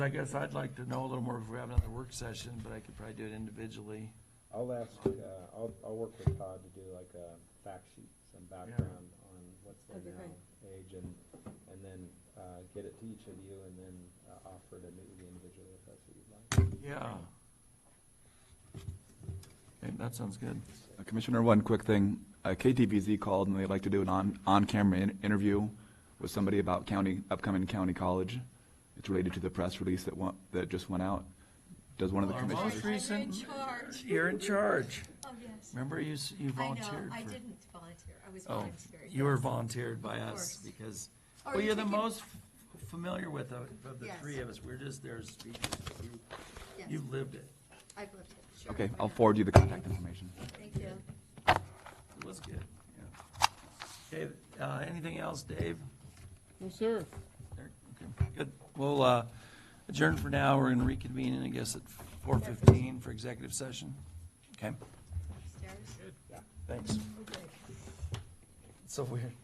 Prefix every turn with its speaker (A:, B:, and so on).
A: I guess I'd like to know a little more if we have another work session, but I could probably do it individually.
B: I'll ask, uh, I'll, I'll work with Todd to do like a fact sheet, some background on what's there
C: That'd be
B: now, age, and, and then, uh, get it to each of you, and then, uh, offer to meet with the individual if that's what you'd like.
A: Yeah. Okay, that sounds good.
D: Uh, Commissioner, one quick thing. Uh, KTVZ called and they'd like to do an on, on-camera in- interview with somebody about county, upcoming county college. It's related to the press release that went, that just went out. Does one of the
A: Our most
D: commissioners?
C: I'm in
A: recent,
C: charge.
A: you're in charge.
C: Oh, yes.
A: Remember you, s- you
C: I know,
A: volunteered for.
C: I didn't volunteer, I was
A: Oh,
C: volunteering.
A: you were
C: yes.
A: volunteered by
C: Of
A: us
C: course.
A: because,
C: Are
A: well,
C: you
A: you're the
C: taking-
A: most f- familiar with, of of the
C: Yes.
A: three of us. We're just there as speakers. You-
C: Yes,
A: You've lived it.
C: I've lived it, sure.
D: Okay,
C: why
D: I'll
C: not?
D: forward you the contact information.
C: Thank you.
A: It was good. yeah. Okay, uh, anything else, Dave?
E: No, sir.
A: Eric? Okay, Good. We'll uh, adjourn for now. We're going to reconvene, I guess, at 4:15 for executive session. Okay,
C: Upstairs?
A: thanks.
C: Okay.
A: So weird.